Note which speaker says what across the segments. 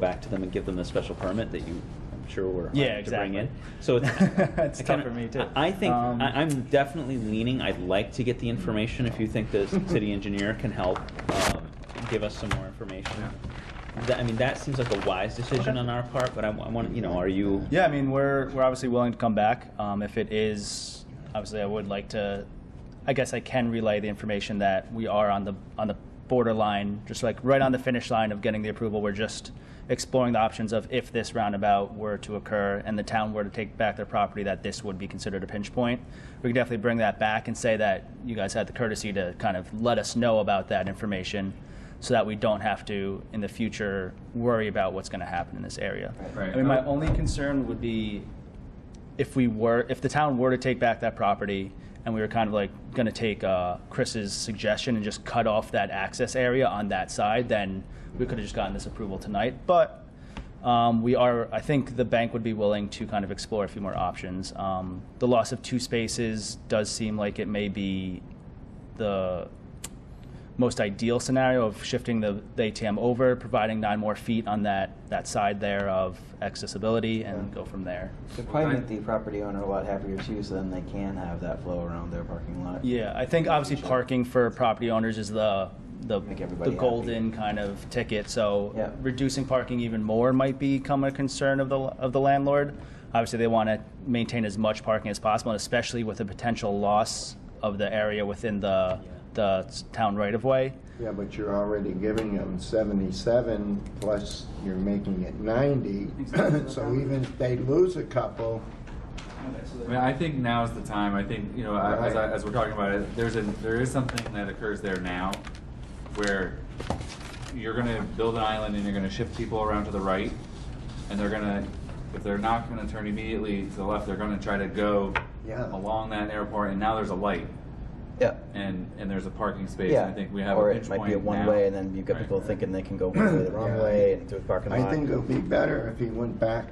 Speaker 1: back to them and give them the special permit that you, I'm sure were
Speaker 2: Yeah,
Speaker 1: hired to bring in.
Speaker 2: exactly.
Speaker 1: So it's,
Speaker 2: It's
Speaker 1: I
Speaker 2: tough
Speaker 1: kinda-
Speaker 2: for me, too.
Speaker 1: I think,
Speaker 2: Um,
Speaker 1: I, I'm definitely leaning, I'd like to get the information if you think the s- city engineer can help, um, give us some more information. That, I mean, that seems like a wise decision
Speaker 2: Okay.
Speaker 1: on our part, but I wa- I want, you know, are you?
Speaker 2: Yeah, I mean, we're we're obviously willing to come back um, if it is. Obviously, I would like to. I guess I can relay the information that we are on the on the borderline, just like right on the finish line of getting the approval. We're just exploring the options of if this roundabout were to occur and the town were to take back their property, that this would be considered a pinch point. We can definitely bring that back and say that you guys had the courtesy to kind of let us know about that information. So that we don't have to, in the future, worry about what's going to happen in this area.
Speaker 3: Right.
Speaker 2: I mean, my only concern would be if we were, if the town were to take back that property and we were kind of like going to take uh, Chris's suggestion and just cut off that access area on that side, then we could have just gotten this approval tonight. But um, we are, I think the bank would be willing to kind of explore a few more options. Um, the loss of two spaces does seem like it may be the most ideal scenario of shifting the, the ATM over, providing nine more feet on that, that side there of accessibility and go from there.
Speaker 4: It'd probably make the property owner a lot happier too, so then they can have that flow around their parking lot.
Speaker 2: Yeah, I think obviously parking for property owners is the, the,
Speaker 4: Make
Speaker 2: the
Speaker 4: everybody
Speaker 2: golden kind of ticket,
Speaker 4: Yeah.
Speaker 2: so reducing parking even more might become a concern of the, of the landlord. Obviously, they want to maintain as much parking as possible, and especially with the potential loss of the area within the, the s- town right-of-way.
Speaker 5: Yeah, but you're already giving them 77, plus you're making it 90. So even if they lose a couple,
Speaker 3: I mean, I think now's the time. I think you know, I- as, I, as we're talking about it, there's a there is something that occurs there now, where you're going to build an island and you're going to shift people around to the right, and they're going to, if they're not going to turn immediately to the left, they're going to try to go
Speaker 5: Yeah.
Speaker 3: along that airport. And now there's a light,
Speaker 4: Yeah.
Speaker 3: and and there's a parking space.
Speaker 4: Yeah.
Speaker 3: And I think we have
Speaker 4: Or
Speaker 3: a pinch
Speaker 4: it might
Speaker 3: point
Speaker 4: be a one
Speaker 3: now.
Speaker 4: way and then you've got
Speaker 3: Right.
Speaker 4: people thinking they can go one way the wrong
Speaker 5: Yeah.
Speaker 4: way and through the parking lot.
Speaker 5: I think it would be better if he went back.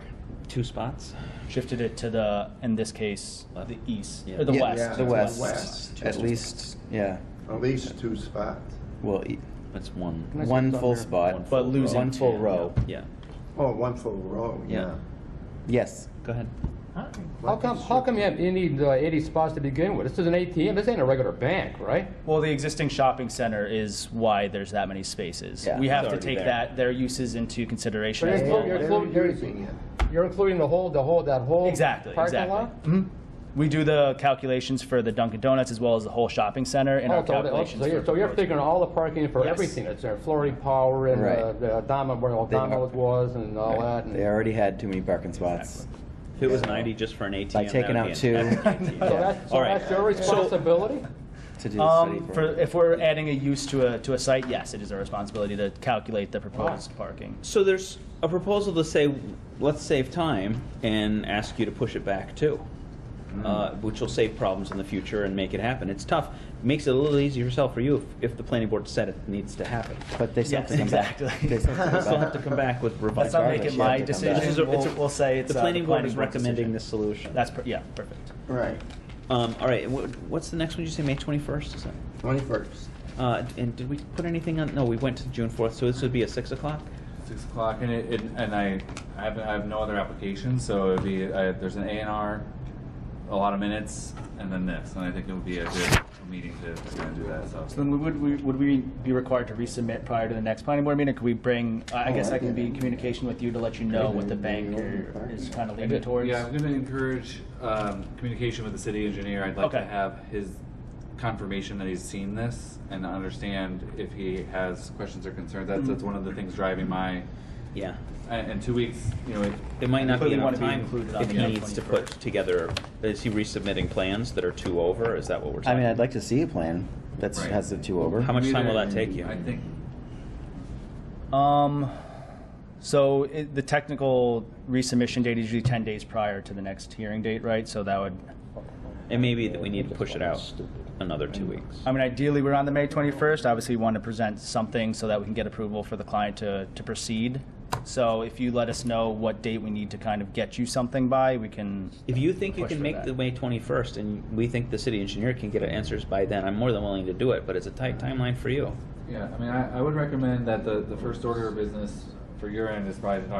Speaker 1: Two spots?
Speaker 2: shifted it to the, in this case,
Speaker 1: Left.
Speaker 2: the east,
Speaker 1: Yeah.
Speaker 2: or the
Speaker 5: Yeah,
Speaker 2: west.
Speaker 5: yeah,
Speaker 2: it's
Speaker 5: the west.
Speaker 2: west.
Speaker 6: At least, yeah.
Speaker 5: At least two spots.
Speaker 6: Well, e-
Speaker 1: That's one.
Speaker 6: one full
Speaker 1: one
Speaker 6: spot.
Speaker 1: full
Speaker 2: But losing
Speaker 6: One full
Speaker 2: two,
Speaker 6: row.
Speaker 1: Yeah,
Speaker 5: Oh, one full row,
Speaker 1: Yeah.
Speaker 5: yeah.
Speaker 6: Yes.
Speaker 1: go ahead.
Speaker 7: How come, how come you have, you need uh, 80 spots to begin with? This is an ATM, this ain't a regular bank, right?
Speaker 2: Well, the existing shopping center is why there's that many spaces.
Speaker 6: Yeah,
Speaker 2: We
Speaker 6: it's
Speaker 2: have to
Speaker 1: already
Speaker 2: take
Speaker 1: there.
Speaker 2: that, their uses into consideration.
Speaker 7: But
Speaker 2: as
Speaker 7: it's
Speaker 2: well.
Speaker 7: not-
Speaker 5: They're
Speaker 7: Well, you're-
Speaker 5: using it.
Speaker 7: You're including the whole, the whole, that whole
Speaker 2: Exactly,
Speaker 7: parking
Speaker 2: exactly.
Speaker 7: lot?
Speaker 2: Mhm. We do the calculations for the Dunkin' Donuts as well as the whole shopping center in
Speaker 7: Oh,
Speaker 2: our
Speaker 7: so that- oh,
Speaker 2: calculations.
Speaker 7: So you're,
Speaker 2: for
Speaker 7: so you're
Speaker 2: proposed-
Speaker 7: figuring all the parking for
Speaker 2: Yes.
Speaker 7: everything that's there, Flurry Power and uh,
Speaker 6: Right.
Speaker 7: the Dama, where all
Speaker 6: They are-
Speaker 7: Domino's was and all that. and-
Speaker 6: They already had too many parking spots.
Speaker 1: If it was ninety just for an ATM.
Speaker 6: By taking
Speaker 1: that would
Speaker 6: out
Speaker 1: be an
Speaker 6: two.
Speaker 1: epic
Speaker 7: So
Speaker 1: ATM.
Speaker 7: that's,
Speaker 1: All
Speaker 7: so
Speaker 1: right.
Speaker 7: that's your responsibility?
Speaker 6: To do the
Speaker 2: Um,
Speaker 6: city
Speaker 2: for,
Speaker 6: for.
Speaker 2: if we're adding a use to a, to a site, yes, it is our responsibility to calculate the proposed parking.
Speaker 1: So there's a proposal to say, let's save time and ask you to push it back too, uh, which will save problems in the future and make it happen. It's tough, makes it a little easier for yourself for you if, if the planning board said it needs to happen.
Speaker 6: But they still have to
Speaker 2: Yes,
Speaker 6: come back.
Speaker 2: exactly.
Speaker 6: They still have to
Speaker 1: You still
Speaker 6: come
Speaker 1: have to
Speaker 6: back.
Speaker 1: come back with revised.
Speaker 2: Let's not make it
Speaker 6: She
Speaker 2: my
Speaker 6: had to come
Speaker 2: decision.
Speaker 6: back.
Speaker 1: This is a- it's a-
Speaker 2: We'll, we'll say it's
Speaker 1: The
Speaker 2: uh,
Speaker 1: planning board is
Speaker 2: board's
Speaker 1: recommending
Speaker 2: decision.
Speaker 1: this solution.
Speaker 2: That's, per- yeah, perfect.
Speaker 5: Right,
Speaker 1: Um, all right, wha- what's the next one? Did you say May twenty-first, is that?
Speaker 5: 21st.
Speaker 1: Uh, and did we put anything on, no, we went to June fourth, so this would be a six o'clock?
Speaker 3: Six o'clock, and it, it and I, I have I have no other application, so it'd be I, there's an A and R, a lot of minutes, and then this, and I think it would be a good meeting to, to kind of do that. So,
Speaker 2: So then we would, we- would we be required to resubmit prior to the next planning board meeting? Could we bring, I I
Speaker 5: Oh,
Speaker 2: guess I
Speaker 5: I
Speaker 2: can be in
Speaker 5: didn't.
Speaker 2: communication with you to let you know what the bank are- is kind of leaning towards?
Speaker 3: yeah, I'm going to encourage um, communication with the city engineer. I'd like to
Speaker 2: Okay.
Speaker 3: have his confirmation that he's seen this and understand if he has questions or concerns. That's
Speaker 1: Mm-hmm.
Speaker 3: that's one of the things driving my.
Speaker 1: Yeah.
Speaker 3: And in two weeks, you know, if,
Speaker 1: It might not be
Speaker 2: Clearly
Speaker 1: enough
Speaker 2: wanna be
Speaker 1: time
Speaker 2: included on
Speaker 1: if
Speaker 2: the
Speaker 1: he needs to put
Speaker 2: 21st.
Speaker 1: together, is he resubmitting plans that are two over? Is that what we're
Speaker 6: I
Speaker 1: talking?
Speaker 6: mean, I'd like to see a plan that
Speaker 3: Right.
Speaker 6: has the two over.
Speaker 1: How much time will that
Speaker 3: Either-
Speaker 1: take you?
Speaker 3: I think
Speaker 2: Um, so it, the technical resubmission date is usually 10 days prior to the next hearing date, right? So that would,
Speaker 1: It may be that we need to push it out another
Speaker 2: Mm.
Speaker 1: two weeks.
Speaker 2: I mean, ideally, we're on the May 21st. Obviously, we want to present something so that we can get approval for the client to, to proceed. So if you let us know what date we need to kind of get you something by, we can,
Speaker 1: If you think you
Speaker 2: Push
Speaker 1: can
Speaker 2: for
Speaker 1: make
Speaker 2: that.
Speaker 1: the May 21st and we think the city engineer can get answers by then, I'm more than willing to do it, but it's a tight timeline for you.
Speaker 3: Yeah, I mean, I, I would recommend that the, the first order of business for your end is probably to talk